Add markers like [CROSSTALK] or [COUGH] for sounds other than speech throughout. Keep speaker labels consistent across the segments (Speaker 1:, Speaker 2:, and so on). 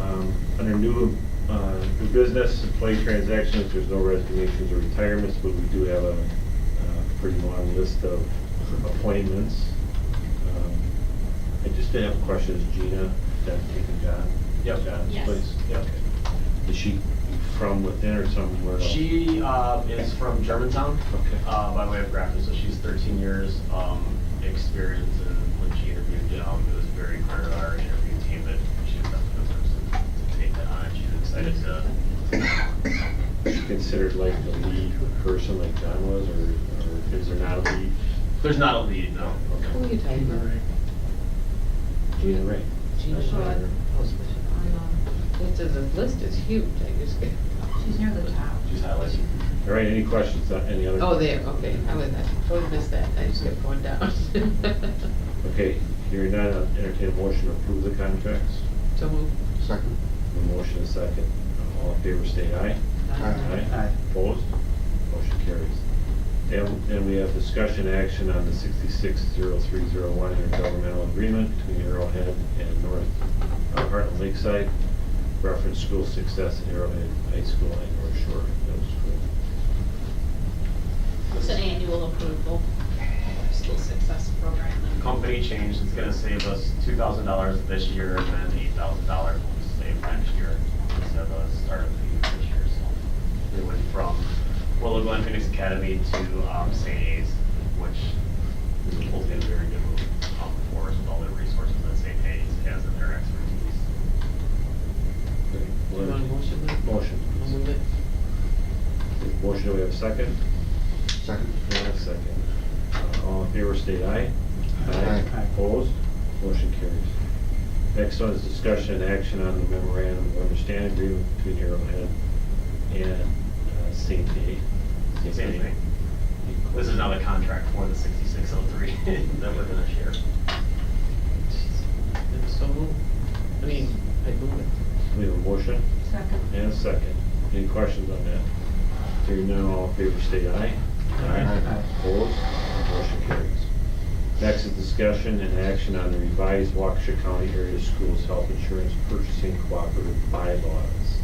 Speaker 1: Um, Under new, uh, new business, employee transactions, there's no resignations or retirements, but we do have a, uh pretty long list of appointments. Um, I just did have questions, Gina, that taken John?
Speaker 2: Yep.
Speaker 1: John's
Speaker 3: Yes.
Speaker 1: place? Yep. Is she from within or somewhere else?
Speaker 2: She uh, is from Germantown,
Speaker 1: Okay.
Speaker 2: uh, by way of Grafton, so she's 13 years um, experience, and when she interviewed, um, it was very clear to our interview team that she was not the person to take that on, she was excited to.
Speaker 1: Considered like the lead person like John was, or, or is there not a lead?
Speaker 2: There's not a lead, no.
Speaker 4: Who are you talking about?
Speaker 1: Gina Ray.
Speaker 4: Gina
Speaker 1: That's
Speaker 4: Shaw?
Speaker 1: her.
Speaker 4: I know. This is, the list is huge, I just,
Speaker 3: She's near the top.
Speaker 2: She's highlighted.
Speaker 1: All right, any questions on any other?
Speaker 4: oh, there, okay, I was, I totally missed that, I just kept going down.
Speaker 1: Okay, hearing none, I'll entertain a motion to approve the contracts.
Speaker 4: So move.
Speaker 5: Second.
Speaker 1: A motion and second. All in favor, state aye.
Speaker 5: Aye.
Speaker 1: Opposed? Motion carries. Then, then we have discussion action on the sixty-six zero three zero one intergovernmental agreement between Arrowhead and North, uh, Heartland Lakeside. Reference school success at Arrowhead High School and North Shore Middle School.
Speaker 3: It's an annual approval, school success program.
Speaker 2: Company change, it's gonna save us $2,000 this year and then $8,000 will be saved next year instead of the start of the year this year, so. It went from Willow Glen Phoenix Academy to um, St. A's, which will be a very good move um, for us with all the resources that St. A's has and their expertise.
Speaker 4: You want a motion, Lynn?
Speaker 1: Motion.
Speaker 4: I'll move it.
Speaker 1: Motion, do we have a second?
Speaker 5: Second.
Speaker 1: And a second. Uh, All in favor, state aye.
Speaker 5: Aye. Aye.
Speaker 1: Opposed? Motion carries. Next one is discussion and action on the memorandum of understanding agreement between Arrowhead and uh, St. A.
Speaker 2: Same thing. This is now the contract for the 6603 [LAUGHS] that we're gonna share.
Speaker 4: Then So move. I mean, I move it.
Speaker 1: We have a motion
Speaker 3: Second.
Speaker 1: and a second. Any questions on that? Hearing none, all in favor, state aye.
Speaker 5: Aye.
Speaker 1: Opposed? Motion carries. Next is discussion and action on the revised Waukesha County Area Schools Health Insurance Purchasing Cooperative bylaws.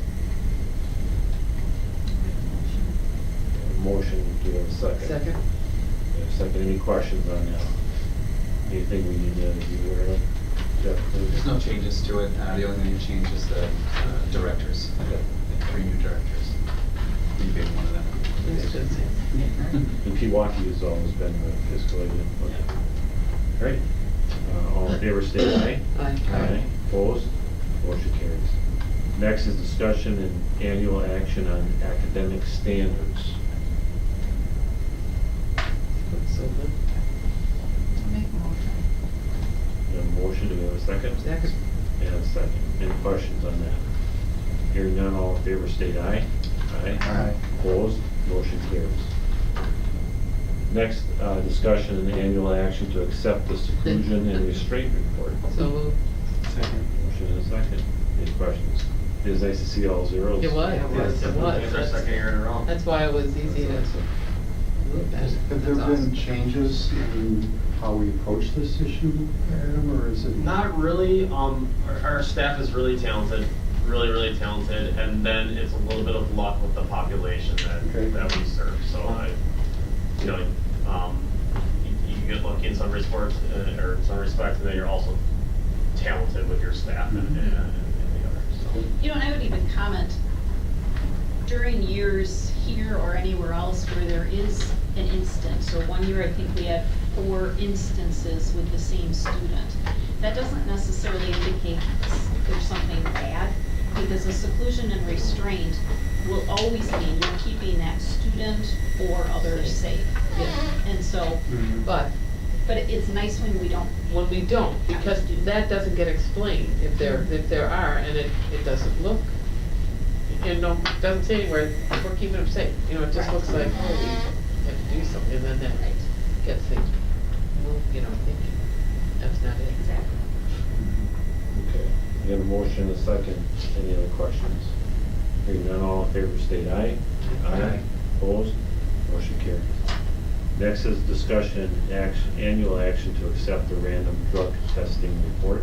Speaker 1: Motion, do we have a second?
Speaker 4: Second?
Speaker 1: We have a Second, any questions on that? Anything we need to be aware of? Jeff, please.
Speaker 6: There's no changes to it. Uh, The only thing that changed is the uh, directors, the three new directors. You being one of them.
Speaker 4: Yes,
Speaker 6: [LAUGHS]
Speaker 4: yes,
Speaker 1: And Pewaukee has always been the fiscal agent. Great. Uh, All in favor, state aye.
Speaker 4: Aye.
Speaker 1: Aye. Opposed? Motion carries. Next is discussion and annual action on academic standards.
Speaker 4: So move.
Speaker 3: Make a motion.
Speaker 1: We have a motion, do we have a second?
Speaker 4: Second.
Speaker 1: And a second. Any questions on that? Hearing none, all in favor, state aye.
Speaker 5: Aye.
Speaker 1: Opposed? Motion carries. Next, uh, discussion and annual action to accept the seclusion and restraint report.
Speaker 4: So move.
Speaker 1: Motion and a second. Any questions? It is nice to see all zeros.
Speaker 4: It was, it was, it
Speaker 2: It's our
Speaker 4: was.
Speaker 2: second year in a row.
Speaker 4: That's why it was easy to move that.
Speaker 5: Have there
Speaker 4: That's awesome.
Speaker 5: been changes in how we approach this issue, Adam, or is it?
Speaker 2: Not really. Um, our, our staff is really talented, really, really talented, and then it's a little bit of luck with the population that,
Speaker 5: Okay.
Speaker 2: that we serve. So I, you know, um, you, you get lucky in some respects, uh, or in some respects, and then you're also talented with your staff and, and, and the others.
Speaker 3: You know, and I would even comment, during years here or anywhere else where there is an instance, or one year I think we had four instances with the same student, that doesn't necessarily indicate s- there's something bad, because the seclusion and restraint will always mean you're keeping that student or others safe.
Speaker 4: Yeah.
Speaker 3: And so,
Speaker 4: But
Speaker 3: but it- it's nice when we don't
Speaker 4: when we don't, because that doesn't get explained if there, if there are, and it, it doesn't look, you know, doesn't say anywhere, we're keeping them safe, you know, it just
Speaker 3: Right.
Speaker 4: looks like, oh, we have to do something, and then that
Speaker 3: Right.
Speaker 4: gets things, moved, you know, thinking, that's not it.
Speaker 3: Exactly.
Speaker 1: Okay. We have a motion and a second. Any other questions? Hearing none, all in favor, state aye.
Speaker 5: Aye.
Speaker 1: Opposed? Motion carries. Next is discussion, action, annual action to accept the random drug testing report.